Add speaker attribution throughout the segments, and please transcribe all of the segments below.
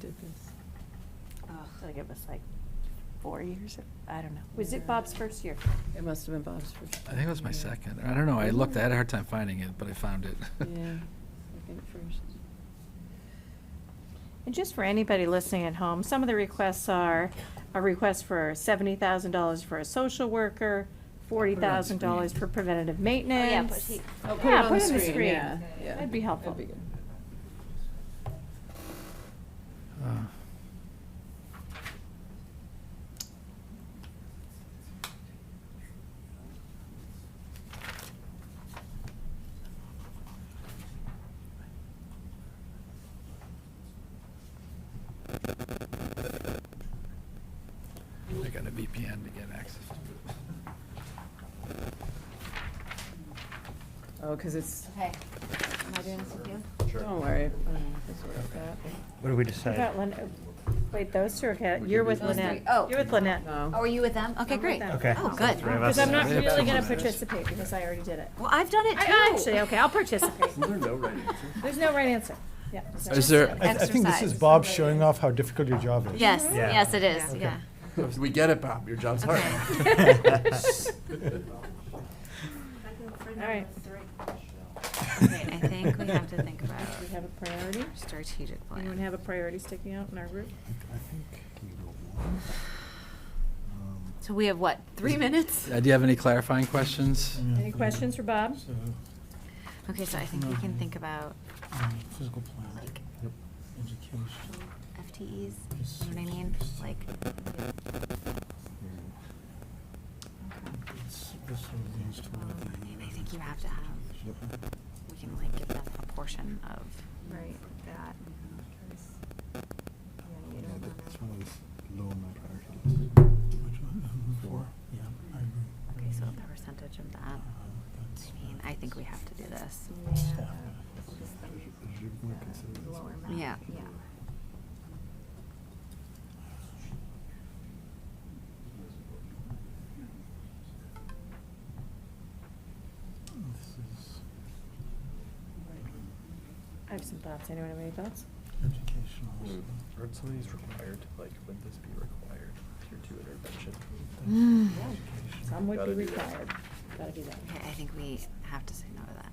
Speaker 1: did this.
Speaker 2: Ugh, I think it was like four years, I don't know. Was it Bob's first year?
Speaker 1: It must have been Bob's first.
Speaker 3: I think it was my
Speaker 1: yeah.
Speaker 3: second. I don't know. I looked, I had a hard time finding it, but I found it.
Speaker 1: Yeah, second first.
Speaker 2: And just for anybody listening at home, some of the requests are a request for seventy thousand dollars for a social worker, forty thousand dollars for preventative maintenance.
Speaker 4: he-
Speaker 1: Oh, put it
Speaker 2: Yeah,
Speaker 1: on
Speaker 2: put
Speaker 1: the
Speaker 2: it on the
Speaker 1: screen,
Speaker 2: screen.
Speaker 1: yeah, yeah.
Speaker 2: That'd be helpful.
Speaker 1: That'd be good.
Speaker 3: Uh, I got a VPN to get access to it.
Speaker 1: Oh, because it's,
Speaker 4: Okay. Am I doing this with you?
Speaker 1: don't worry. um, this sort of that.
Speaker 5: What do we
Speaker 2: What about
Speaker 5: decide?
Speaker 2: Lynette? Wait, those two are, ca-
Speaker 3: We
Speaker 2: you're
Speaker 3: can
Speaker 2: with
Speaker 3: do those
Speaker 2: Lynette.
Speaker 4: three. Oh.
Speaker 2: You're with Lynette.
Speaker 1: No.
Speaker 4: Oh, are you with them? Okay,
Speaker 2: I'm with
Speaker 4: great.
Speaker 2: them.
Speaker 5: Okay.
Speaker 4: Oh,
Speaker 5: so
Speaker 4: good.
Speaker 5: three of
Speaker 2: Because
Speaker 5: us.
Speaker 2: I'm not
Speaker 3: We have
Speaker 2: really
Speaker 3: two
Speaker 2: gonna
Speaker 3: minutes.
Speaker 2: participate because I already did it.
Speaker 4: Well, I've done it too.
Speaker 2: I- Actually, okay, I'll participate.
Speaker 5: no right
Speaker 2: There's no right answer. Yeah. so-
Speaker 3: Is there-
Speaker 6: I, I think this is Bob showing off how difficult your job is.
Speaker 4: Yes,
Speaker 5: Yeah.
Speaker 4: yes, it is, yeah.
Speaker 3: We get it, Bob. Your job's hard.
Speaker 2: All right.
Speaker 4: Wait, I think we have to think about
Speaker 2: We have a priority?
Speaker 4: strategic plan.
Speaker 2: Anyone have a priority sticking out in our group?
Speaker 4: So we have what, three minutes?
Speaker 3: Uh, Do you have any clarifying questions?
Speaker 2: Any questions for Bob?
Speaker 4: Okay, so I think we can think about
Speaker 6: Mm, Physical plan,
Speaker 4: like
Speaker 6: education.
Speaker 4: FTEs, you know what I mean? Like,
Speaker 6: it's- this sort of leans toward
Speaker 4: um,
Speaker 6: the,
Speaker 4: I mean, I
Speaker 6: uh,
Speaker 4: think you have to have, we can like give them a portion of
Speaker 7: Right, that.
Speaker 6: Yeah, that's one of those low on my priority list. Which one? Um, Four? Yeah, I agree.
Speaker 4: Okay, so a percentage of that.
Speaker 6: Uh, that's-
Speaker 4: I mean, I think we have to do this.
Speaker 6: Staff. More considered.
Speaker 4: Yeah.
Speaker 7: Yeah.
Speaker 6: This is
Speaker 2: I have some thoughts. Anyone have any thoughts?
Speaker 6: educational. so-
Speaker 8: Hmm, Aren't some of these required, like, would this be required, tier two intervention?
Speaker 6: Education.
Speaker 2: Some would be
Speaker 8: Gotta do that.
Speaker 2: required. Gotta do that.
Speaker 4: Okay, I think we have to say no to that.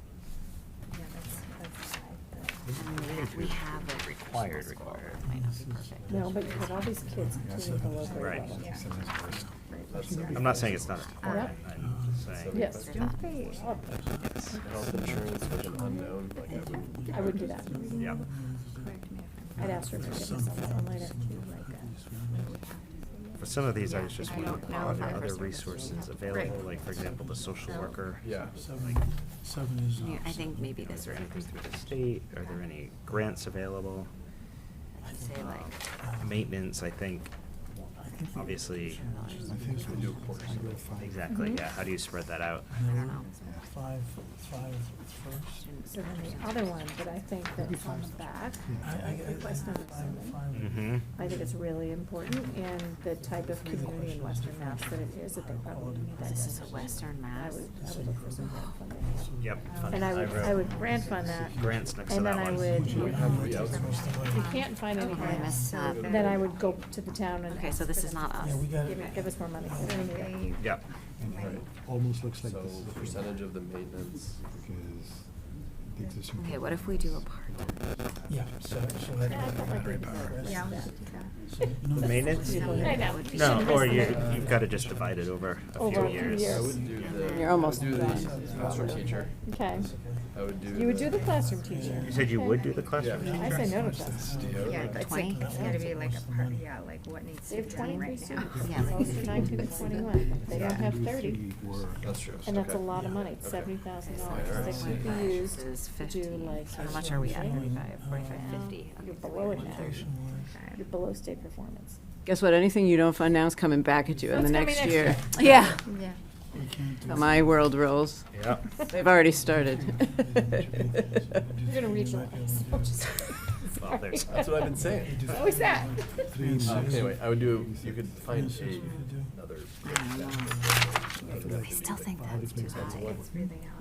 Speaker 4: We ha- We have a required school. It might not be perfect.
Speaker 2: No, but you have all these kids continuing to low grade
Speaker 5: Right.
Speaker 2: level.
Speaker 5: I'm not saying it's not important,
Speaker 2: Yeah.
Speaker 5: I'm just saying.
Speaker 2: Yes.
Speaker 4: Don't
Speaker 2: Oh,
Speaker 8: Health insurance was an unknown, like, I wouldn't.
Speaker 2: I wouldn't do that.
Speaker 5: Yeah.
Speaker 2: I'd ask for forgiveness on that one later. uh,
Speaker 5: For some of these, I was just
Speaker 7: I
Speaker 5: wondering,
Speaker 7: don't know
Speaker 5: are
Speaker 7: if I
Speaker 5: there other
Speaker 7: understood this.
Speaker 5: resources available, like, for example, the social worker?
Speaker 8: Yeah.
Speaker 5: Like,
Speaker 6: Seven is.
Speaker 4: Yeah, I
Speaker 6: uh,
Speaker 4: think maybe
Speaker 5: Is
Speaker 4: this
Speaker 5: there
Speaker 4: would
Speaker 5: anything through the state? Are there any grants available?
Speaker 4: I'd say like,
Speaker 5: Maintenance, I think,
Speaker 6: uh, I think we-
Speaker 5: obviously,
Speaker 6: I think we do five.
Speaker 5: exactly,
Speaker 7: Mm-hmm.
Speaker 5: yeah, how do you spread that out?
Speaker 6: No,
Speaker 8: Mm-hmm.
Speaker 4: I don't know.
Speaker 6: Five, five first.
Speaker 4: students
Speaker 2: So then the other one that I think that's on the back,
Speaker 6: I, I, I.
Speaker 2: Request number seven.
Speaker 5: Mm-hmm.
Speaker 2: I think it's really important and the type of community in Western Mass that it is, that they probably need that.
Speaker 4: This is a
Speaker 2: definition.
Speaker 4: Western
Speaker 2: I
Speaker 4: Mass.
Speaker 2: would, I would look for some grant funding.
Speaker 5: Yep.
Speaker 2: And I would,
Speaker 5: wrote
Speaker 2: I would grant fund that.
Speaker 5: Grants next to
Speaker 2: And
Speaker 5: that
Speaker 2: then
Speaker 5: one.
Speaker 2: I would, you know,
Speaker 8: Yeah.
Speaker 2: if you can't find any
Speaker 4: Oh, I
Speaker 2: grants,
Speaker 4: missed that.
Speaker 2: then I would go to the town and.
Speaker 4: Okay, so
Speaker 2: ask
Speaker 4: this
Speaker 2: for
Speaker 4: is
Speaker 2: them
Speaker 4: not
Speaker 2: to
Speaker 4: us.
Speaker 6: Yeah, we got
Speaker 2: Give
Speaker 6: it.
Speaker 2: me- give us more money. We don't need it.
Speaker 5: Yep.
Speaker 8: Right.
Speaker 6: Almost looks like
Speaker 8: So
Speaker 6: this.
Speaker 8: percentage of the maintenance.
Speaker 6: Because the existing.
Speaker 4: Okay, what if we do a part?
Speaker 6: Yeah, so, so that.
Speaker 2: Yeah, I felt like we did that.
Speaker 7: Yeah.
Speaker 6: So, you know,
Speaker 5: The maintenance?
Speaker 2: I know.
Speaker 4: Would be-
Speaker 5: No,
Speaker 2: Shouldn't
Speaker 5: or
Speaker 2: miss
Speaker 5: you,
Speaker 2: the-
Speaker 5: you've gotta just divide it over a
Speaker 2: Over a
Speaker 5: few
Speaker 2: few
Speaker 5: years.
Speaker 8: I
Speaker 2: years.
Speaker 8: would do the.
Speaker 4: You're
Speaker 8: I would
Speaker 1: almost
Speaker 8: do the
Speaker 1: done.
Speaker 8: Classroom teacher.
Speaker 2: Okay.
Speaker 8: I would do.
Speaker 2: You would do the classroom teacher.
Speaker 5: You said you would do the classroom?
Speaker 8: Yeah.
Speaker 2: I say no to this.
Speaker 7: Yeah, but it's like, it's gotta be like a part, yeah, like what needs
Speaker 2: They
Speaker 7: to be
Speaker 2: have
Speaker 7: done
Speaker 2: twenty-three
Speaker 7: right now.
Speaker 2: students,
Speaker 4: Yeah.
Speaker 2: most are nineteen to twenty-one, they don't have thirty,
Speaker 8: That's true.
Speaker 2: and that's a
Speaker 8: Okay.
Speaker 2: lot of money,
Speaker 8: Okay.
Speaker 2: seventy thousand
Speaker 8: All
Speaker 2: dollars,
Speaker 8: right.
Speaker 2: they could be used
Speaker 4: Is
Speaker 2: to do
Speaker 4: fifty.
Speaker 2: like.
Speaker 4: So how much are we at?
Speaker 2: social media.
Speaker 4: Forty-five, forty-five, fifty.
Speaker 2: You're below it now,
Speaker 7: Okay.
Speaker 2: you're below state performance.
Speaker 9: Guess what? Anything you don't fund now is coming back at you in
Speaker 2: It's
Speaker 9: the
Speaker 2: coming
Speaker 9: next
Speaker 2: next
Speaker 9: year.
Speaker 2: year.
Speaker 9: Yeah.
Speaker 7: Yeah.
Speaker 6: We can't do.
Speaker 9: My world rolls.
Speaker 5: Yep.
Speaker 9: They've already started.
Speaker 2: You're gonna reach a lot. I'm just-
Speaker 5: Well, there's-
Speaker 2: Sorry.
Speaker 8: That's what I've been saying.
Speaker 2: What was that?
Speaker 6: Three and
Speaker 8: Um,
Speaker 6: six.
Speaker 8: Anyway, I would do, you could find
Speaker 6: This is what we do.
Speaker 8: a, another.
Speaker 4: I still think that's too high.